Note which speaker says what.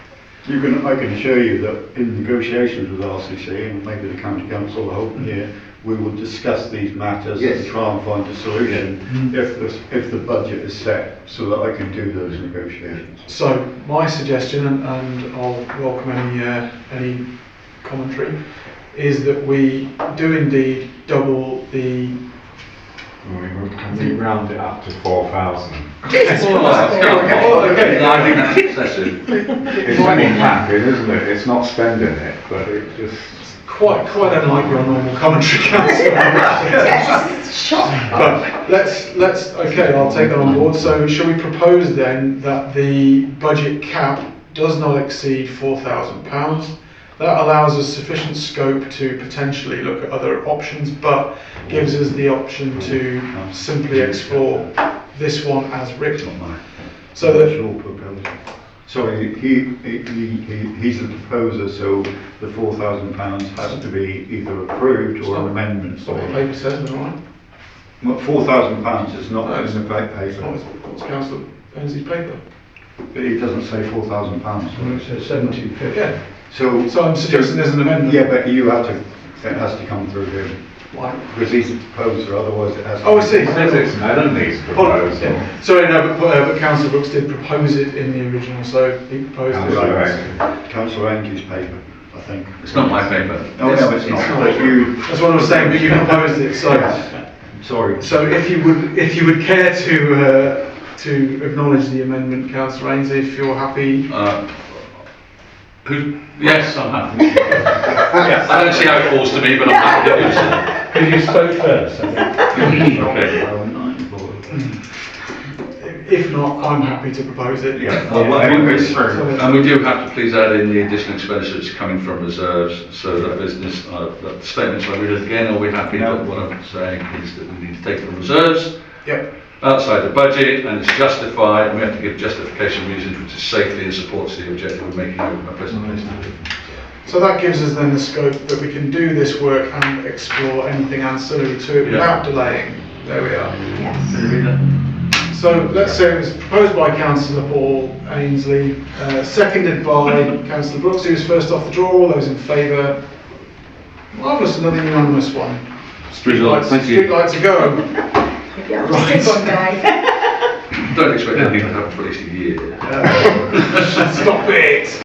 Speaker 1: You can, I can assure you that in negotiations with RCC and maybe the county council, I hope here, we will discuss these matters and
Speaker 2: Yes.
Speaker 1: try and find a
Speaker 3: Mm-hmm.
Speaker 1: solution if the, if the budget is set, so that I can do those negotiations.
Speaker 3: So my suggestion, and, and I'll welcome any, uh, any commentary, is that we do indeed double the.
Speaker 4: We, we round it up to four thousand.
Speaker 3: Oh, okay.
Speaker 2: No, I think that's excessive.
Speaker 4: It's only capping, isn't it? It's not spending it, but it just.
Speaker 3: Quite, quite unlike your normal commentary, councillor. But let's, let's, okay, I'll take that on board. So shall we propose then that the budget cap does not exceed four thousand pounds? That allows us sufficient scope to potentially look at other options, but gives us the option to simply explore this one as written. So that
Speaker 1: Sure, proposal. Sorry, he, he, he, he's the proposer, so the four thousand pounds has to be either approved or an amendment.
Speaker 3: That's what the paper says, am I right?
Speaker 1: Four thousand pounds is not
Speaker 3: No,
Speaker 1: in the pa-
Speaker 3: It's
Speaker 1: paper,
Speaker 3: not, it's- it's councillor Ainsley's paper.
Speaker 1: but it doesn't say four thousand pounds.
Speaker 5: seventeen fifty.
Speaker 3: Yeah,
Speaker 1: So.
Speaker 3: so I'm suggesting there's an amendment.
Speaker 1: Yeah, but you have to, it has to come through him,
Speaker 3: Why?
Speaker 1: because he's the proposer, otherwise it has to.
Speaker 3: Oh, I see.
Speaker 4: It says it's Melanie proposal.
Speaker 3: Yeah. Sorry, no, but, uh, but councillor Brooks did propose it in the original, so he proposed
Speaker 4: Councillor
Speaker 3: it.
Speaker 4: Ainsley.
Speaker 1: Councillor Ainsley's paper, I think.
Speaker 2: It's not my paper.
Speaker 1: No, Oh, no, it's not, but you,
Speaker 3: That's what I was saying, but you proposed it, so,
Speaker 1: sorry.
Speaker 3: so if you would, if you would care to, uh, to acknowledge the amendment, councillor Ainsley, if you're happy.
Speaker 2: Uh, Who, yes, I'm happy. I don't see how it falls to me, but I'm happy to do so.
Speaker 5: Because you spoke first, I think.
Speaker 2: Okay.
Speaker 3: If not, I'm happy to propose it.
Speaker 1: Yeah.
Speaker 2: Well,
Speaker 1: Yeah,
Speaker 2: we-
Speaker 1: it's true.
Speaker 2: And we do have to please add in the additional expenditures coming from reserves, so that business, uh, that statement, so I read it again, are we happy that what I'm saying is that we need to take from reserves
Speaker 3: Yep,
Speaker 2: outside the budget and it's justified, and we have to give justification reasons which is safely and supports the objective of making a pleasant place to live.
Speaker 3: so that gives us then the scope that we can do this work and explore anything ancillary to it
Speaker 2: Yeah.
Speaker 3: without delaying. There we are.
Speaker 6: Yes.
Speaker 3: So let's say it was proposed by councillor Paul Ainsley, uh, seconded by councillor Brooks, who was first off the draw. All those in favour? Marvellous, another unanimous one. Streetlights, streetlights a go.
Speaker 6: Yeah, we'll stick on guy.
Speaker 2: Don't expect anything to happen for at least a year.
Speaker 3: Stop it!